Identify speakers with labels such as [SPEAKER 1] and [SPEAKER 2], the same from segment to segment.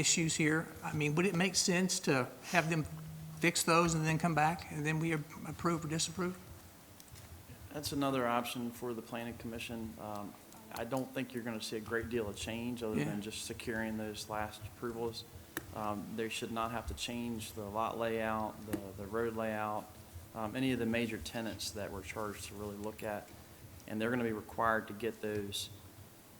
[SPEAKER 1] issues here, I mean, would it make sense to have them fix those and then come back, and then we approve or disapprove?
[SPEAKER 2] That's another option for the planning commission. Um, I don't think you're gonna see a great deal of change other
[SPEAKER 1] Yeah.
[SPEAKER 2] than just securing those last approvals. Um, They should not have to change the lot layout, the, the road layout, um, any of the major tenants that we're charged to really look at. And they're gonna be required to get those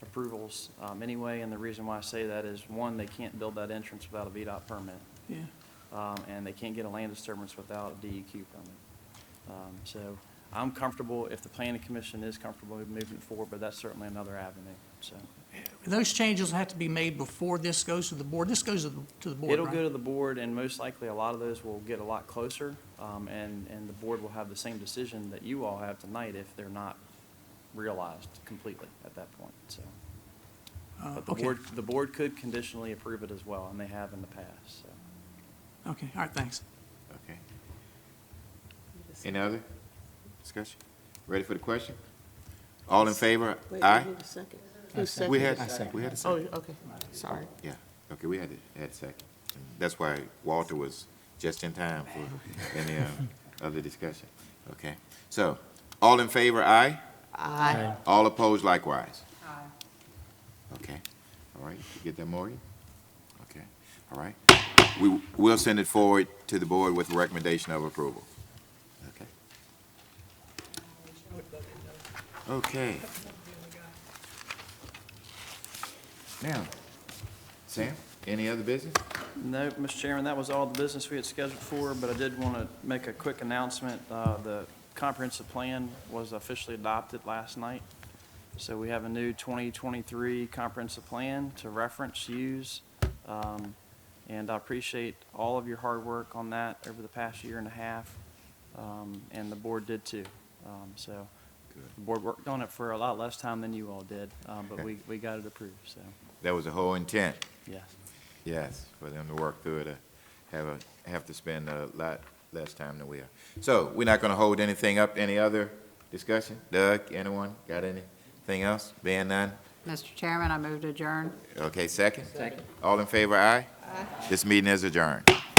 [SPEAKER 2] approvals um, anyway. And the reason why I say that is, one, they can't build that entrance without a VDOT permit
[SPEAKER 1] Yeah,
[SPEAKER 2] um, and they can't get a land disturbance without a DEQ permit. Um, So I'm comfortable, if the planning commission is comfortable with moving it forward, but that's certainly another avenue, so.
[SPEAKER 1] Those changes have to be made before this goes to the board. This goes to the, to the board,
[SPEAKER 2] It'll
[SPEAKER 1] right?
[SPEAKER 2] go to the board, and most likely, a lot of those will get a lot closer, um, and, and the board will have the same decision that you all have tonight if they're not realized completely at that point, so.
[SPEAKER 1] Uh,
[SPEAKER 2] But the
[SPEAKER 1] okay.
[SPEAKER 2] board, the board could conditionally approve it as well, and they have in the past, so.
[SPEAKER 1] Okay, all right, thanks.
[SPEAKER 3] Okay. Any other discussion? Ready for the question? All in favor?
[SPEAKER 4] Wait,
[SPEAKER 3] Aye?
[SPEAKER 4] who was second? Who second?
[SPEAKER 3] We had, we had a
[SPEAKER 4] Oh,
[SPEAKER 3] second.
[SPEAKER 4] okay, sorry.
[SPEAKER 3] Yeah, okay, we had a, had a second. That's why Walter was just in time for any uh, other discussion. Okay, so, all in favor, aye?
[SPEAKER 4] Aye.
[SPEAKER 3] All opposed likewise? Aye. Okay, all right, you get that, Morgan? Okay, all right. We, we'll send it forward to the board with a recommendation of approval. Okay. Okay. Now, Sam, any other business?
[SPEAKER 2] No, Mr. Chairman, that was all the business we had scheduled for, but I did want to make a quick announcement. Uh, The comprehensive plan was officially adopted last night, so we have a new 2023 comprehensive plan to reference, use, Um, and I appreciate all of your hard work on that over the past year and a half, Um, and the board did too. Um, So the board worked on it for a lot less time than you all did, um, but we we got it approved, so,
[SPEAKER 3] That was the whole intent,
[SPEAKER 2] yes.
[SPEAKER 3] yes, for them to work through it, uh, have a, have to spend a lot less time than we are. So, we're not gonna hold anything up, any other discussion? Doug, anyone, got anything else? Being none?
[SPEAKER 5] Mr. Chairman, I move to adjourn.
[SPEAKER 3] Okay, second? Second. All in favor, aye? Aye. This meeting is adjourned.